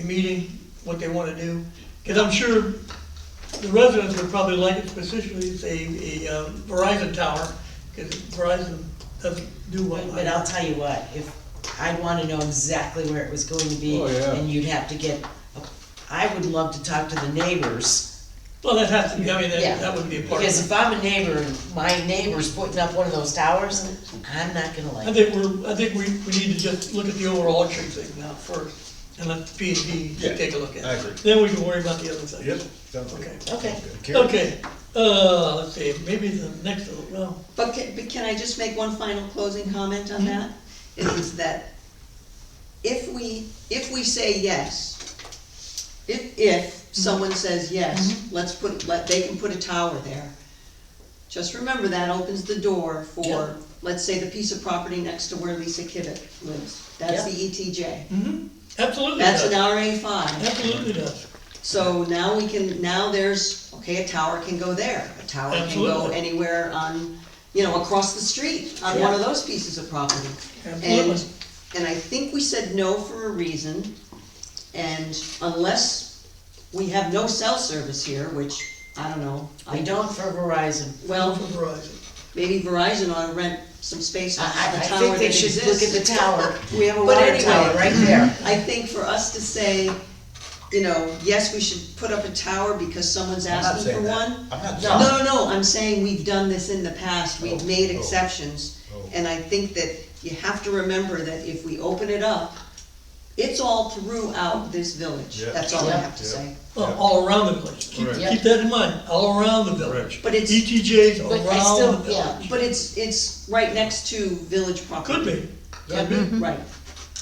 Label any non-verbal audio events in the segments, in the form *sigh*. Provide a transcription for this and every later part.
a meeting, what they wanna do. Cause I'm sure the residents would probably like it specifically, say, a um, Verizon tower, cause Verizon doesn't do well. But but I'll tell you what, if, I'd wanna know exactly where it was going to be, Oh, yeah. and you'd have to get, a- I would love to talk to the neighbors. Well, that has to, be- I mean, Yeah. that, that would be a part of Because it. if I'm a neighbor, and my neighbor's putting up one of those towers, I'm not gonna I like it. think we're, I think we, we need to just look at the overall tree thing now first, and let P and D Yeah, take a look at it. I agree. Then we can worry about the other things. Yep, sounds good. Okay. Okay, Karen? Okay, uh, let's see, maybe the next, little- well, But can, but can I just make one final closing comment on that? Is that if we, if we say yes, if, if someone says yes, let's put, let, they can put a tower there. Just remember that opens the door Yeah. for, let's say, the piece of property next to where Lisa Kivett lives. That's the ETJ. mhm, absolutely That's does, an RA five. absolutely does. So now we can, now there's, okay, a tower can go there, a tower can go Absolutely. anywhere on, you know, across the street, on one of those pieces of property. And, Absolutely. and I think we said no for a reason, and unless we have no cell service here, which, I don't know, I I don't, don't for Verizon. well, For Verizon. maybe Verizon ought to rent some space I, on I the I tower think that they should look at the *laughs* exists. tower. We have a But water anyway, tower right there. I think for us to say, you know, yes, we should put up a tower because someone's I'm not asking saying for that. one. I'm not No. saying. No, no, no, I'm saying we've done this in the past, we've Oh, made oh, exceptions, oh. and I think that you have to remember that if we open it up, it's all throughout this village, Yeah. that's all I Yeah. have to Yeah. say. Well, all around the village, keep, Right. Yeah. keep that in mind, all around the village. But it's- ETJs But I still- around the yeah. village. But it's, it's right next to village property. Could be, Yeah. could be, Right,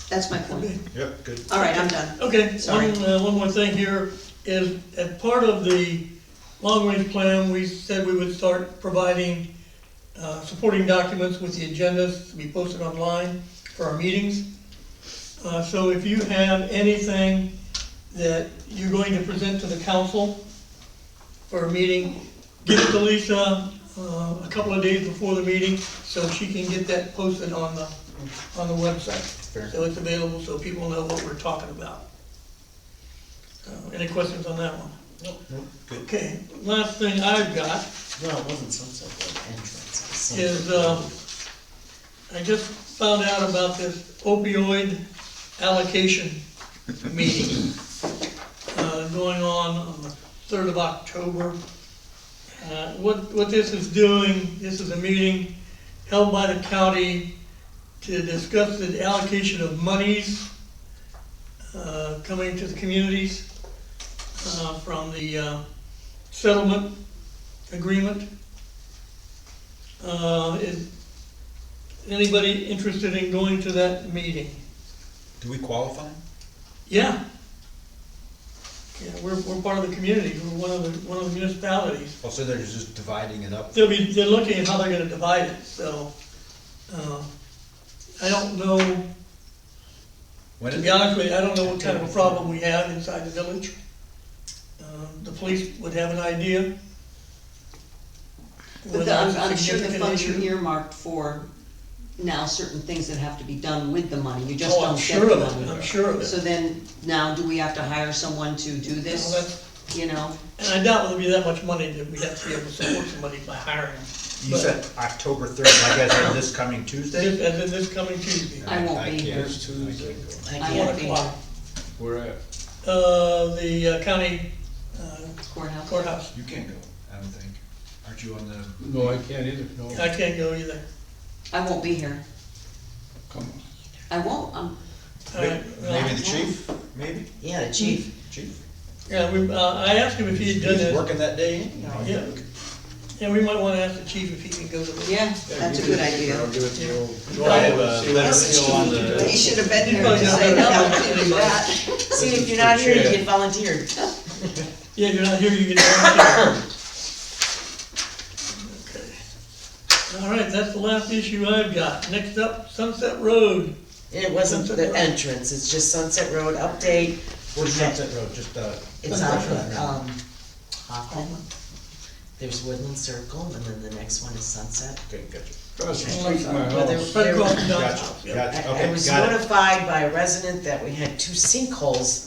that's my could be. point, Yep, good. all right, I'm done. Okay, Sorry. one, uh, one more thing here is, as part of the long-range plan, we said we would start providing, uh, supporting documents with the agendas to be posted online for our meetings. Uh, so if you have anything that you're going to present to the council for a meeting, give it to Lisa, uh, a couple of days before the meeting, so she can get that posted on the, on the website. Fair. So it's available so people know what we're talking about. Uh, Any questions on that one? Nope, Good. Okay, last thing I've got Well, it wasn't some sort of entrance. it's some- is, um, uh, I just found out about this opioid allocation meeting uh, going on on the third of October. Uh, What, what this is doing, this is a meeting held by the county to discuss the allocation of monies uh, coming to the communities uh, from the uh, settlement agreement. Uh, Is anybody interested in going to that meeting? Do we qualify? Yeah. Yeah, we're, we're part of the community, we're one of the, one of the municipalities. Oh, so they're just dividing it up? They'll be, they're looking at how they're gonna divide it, so, uh, I don't know, to When is be it? honest with you, I don't know what kind of a problem we have inside the village. Um, The police would have an idea. But whether the- I'm, it's a I'm sure the significant funds are issue. earmarked for now certain things that have to be done with the money, you just Oh, I'm don't get sure the of it, money. I'm sure of it. So then, now do we have to hire someone to do Now, that's- this, you know? And I doubt it'll be that much money that we have to be able to support somebody by hiring. them. You But said October third, like I said, this coming this- Tuesday? As in this coming Tuesday, I won't be can't- here. I can't go. I I one can't, won't be o'clock, here. Where at? uh, the uh, county uh, courthouse. courthouse. You can't go, I don't think. Aren't you on Uh, the, No, I can't either, no. I can't go either. I won't be here, Come on. I won't, um, All right, well, maybe the chief, maybe? yeah, the chief, Chief? Yeah, we, uh, I asked him if he had done He's this, working that day anyhow. Yeah. and we might wanna ask the chief if he can go to the. yeah, that's a good idea. I'll give it to you. Do I have a uh, letter seal on He the, should have been You here probably to don't say, know no, how I much can't anybody- do that. *laughs* see, if you're for not here, you Chad. get volunteered. Yeah, if you're not here, you can. Okay. All right, that's the last issue I've got. Next up, Sunset Road. It wasn't Sunset the Road. entrance, it's just Sunset Road update, where's Sunset Road, just, uh? it's off Sunset of, Road. um, Hoffman. There's Woodland Circle, and then the next one is Sunset. Okay, gotcha. Across the street from my Well, there- house. Fred Crofton, Gotcha, yeah. I gotcha, I okay, was got it. notified by a resident that we had two sinkholes